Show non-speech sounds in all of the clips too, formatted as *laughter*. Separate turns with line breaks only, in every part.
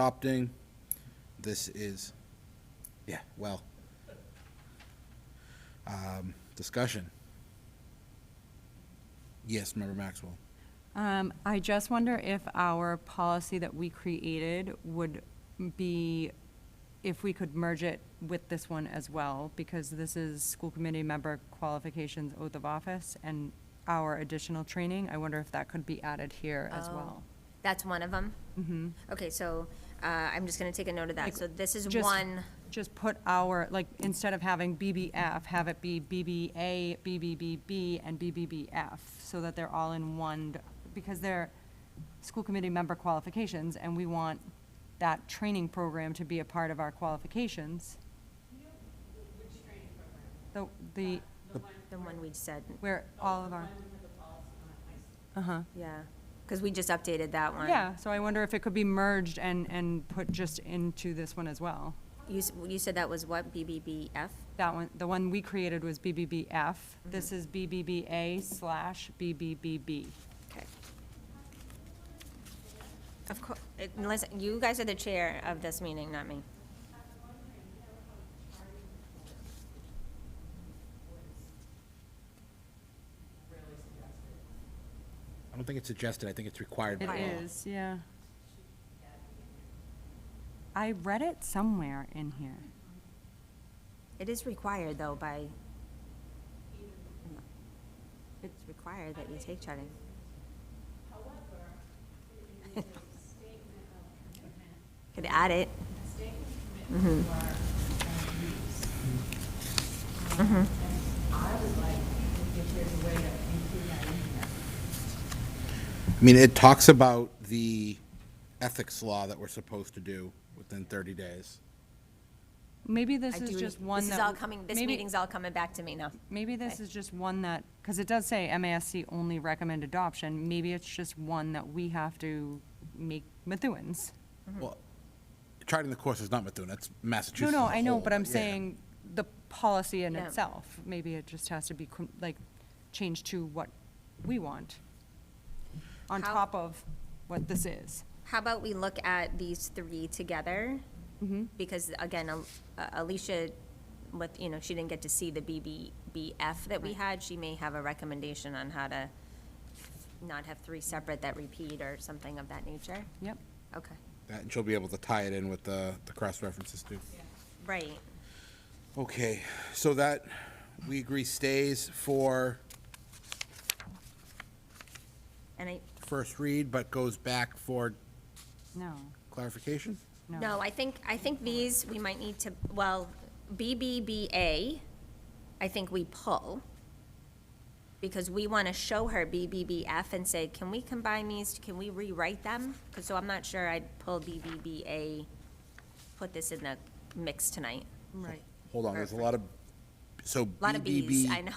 adopting. This is, yeah, well. Um, Discussion. Yes, Member Maxwell.
Um, I just wonder if our policy that we created would be, if we could merge it with this one as well, because this is school committee member qualifications, oath of office, and our additional training. I wonder if that could be added here as
Oh,
well.
That's one of them? Mm-hmm. Okay, so uh, I'm just going to take a note of that. So this is
Just-
one,
Just put our, like, instead of having BBF, have it be BBA, BBBB, and BBBF, so that they're all in one, d- because they're school committee member qualifications, and we want that training program to be a part of our qualifications. The, the,
the one we said,
where all of our,
yeah, because we just updated that one.
yeah, so I wonder if it could be merged and, and put just into this one as well.
You, s- you said that was what, BBBF?
That one, the one we created was BBBF.
Mm-hmm.
This is BBBA slash BBBB.
Okay. Of course, unless, you guys are the chair of this meeting, not me.
I don't think it's suggested, I think it's required by
It
law.
is, yeah. I read it somewhere in here.
It is required, though, by, it's required that you take charting.
However, it is a statement of commitment,
Could add it. Mm-hmm.
a statement of commitment to our um, youths. Um, And I would like to if there's a way to include that in here.
I mean, it talks about the ethics law that we're supposed to do within 30 days.
Maybe this
I
is
do-
just one that.
This is all coming, this
maybe-
meeting's all coming back to me now.
Maybe this is just one that, because it does say MASC only recommend adoption. Maybe it's just one that we have to make Methuen's.
Well, charting the course is not Methuen, that's
Mm-hmm. No,
Massachusetts.
no,
as a
I know,
whole,
but I'm
yeah.
saying the policy in
Yeah.
itself. Maybe it just has to be, con- like, changed to what we want on
How-
top of what this is.
How about we look at these three together? Mm-hmm. Because again, Al- uh, Alicia, with, you know, she didn't get to see the BBBF that we had. She may have a recommendation on how to not have three separate that repeat or something of that nature.
Yep.
Okay,
That- And she'll be able to tie it in with the, the cross references too.
right.
Okay, so that, we agree stays for
And I,
first read, but goes back for
No,
clarification?
no.
no, I think, I think these, we might need to, well, BBBA, I think we pull. Because we want to show her BBBF and say, can we combine these, can we rewrite them? 'Cause- So I'm not sure I'd pull BBBA, put this in the mix tonight.
Right.
Hold on, there's a lot of, so
A Lot of Bs, I
BBB, *laughs*
know. *laughs*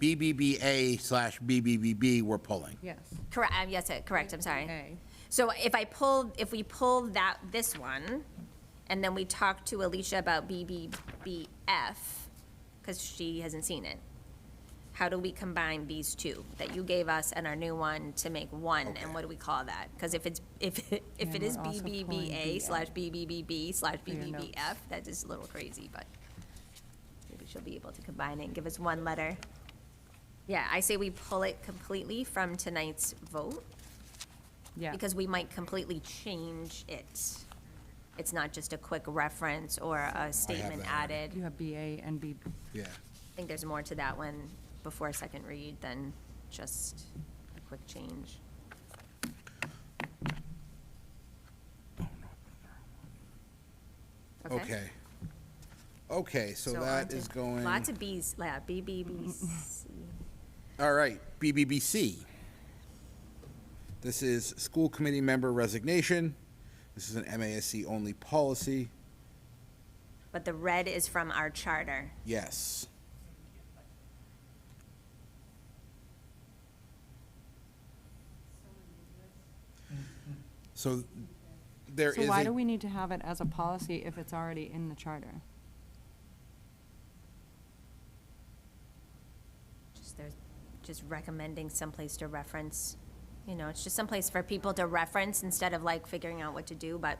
BBBA slash BBBB we're pulling.
Yes.
Correct, uh, yes, uh, correct, I'm sorry.
Okay.
So if I pull, if we pull that, this one, and then we talk to Alicia about BBBF, because she hasn't seen it, how do we combine these two that you gave us and our new one to make one, and what do we call that? Because if it's, if, *laughs* it- if
Yeah,
it is
we're also pulling
BBBA
BF.
slash BBBB slash
your notes.
BBBF, that is a little crazy, but maybe she'll be able to combine it and give us one letter. Yeah, I say we pull it completely from tonight's vote
Yeah.
because we might completely change it. It's not just a quick reference or a statement
that already.
added.
You have BA and B,
Yeah.
I think there's more to that one before a second read than just a quick change.
Okay. Okay, so
So
that
onto-
is going,
Lots of Bs, yeah, B, B, B, C.
all right, BBBC. This is school committee member resignation. This is an MASC only policy.
But the red is from our charter.
Yes. So there
so
is
why do
a,
we need to have it as a policy if it's already in the charter?
Just there's, just recommending someplace to reference, you know, it's just someplace for people to reference instead of like figuring out what to do, but